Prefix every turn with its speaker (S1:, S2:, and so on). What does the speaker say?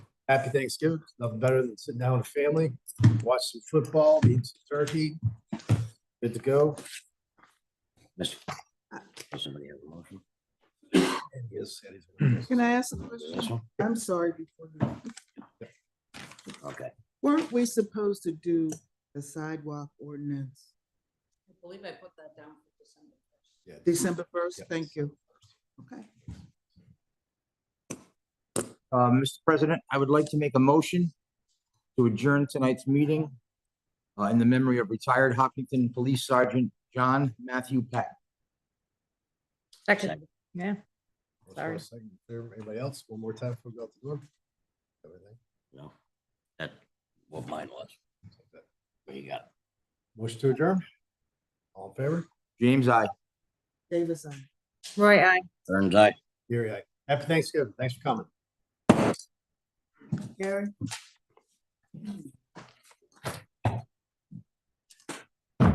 S1: Happy Thanksgiving. Nothing better than sitting down with family, watch some football, eat some turkey. Good to go.
S2: Mr. Does somebody have a motion?
S1: And yes, that is-
S3: Can I ask a
S2: Is
S3: question?
S2: This one?
S3: I'm sorry. before you-
S2: Okay.
S3: Weren't we supposed to do the sidewalk ordinance
S4: I believe I put that down for December first.
S1: Yeah.
S3: December first?
S1: Yes.
S3: Thank you. Okay.
S5: Uh, Mr. President, I would like to make a motion to adjourn tonight's meeting uh, in the memory of retired Hopkinton Police Sergeant John Matthew Patton.
S2: Second.
S6: Second, yeah,
S1: Let's go a second. Anybody else? One more time before we go out the door? Everything.
S2: No, that, what mine was. What you got?
S1: Motion to adjourn? All in favor?
S5: James, I.
S3: Davis, I.
S6: Roy, I.
S2: Burns eye.
S1: Here, I. Happy Thanksgiving. Thanks for coming.
S3: Gary?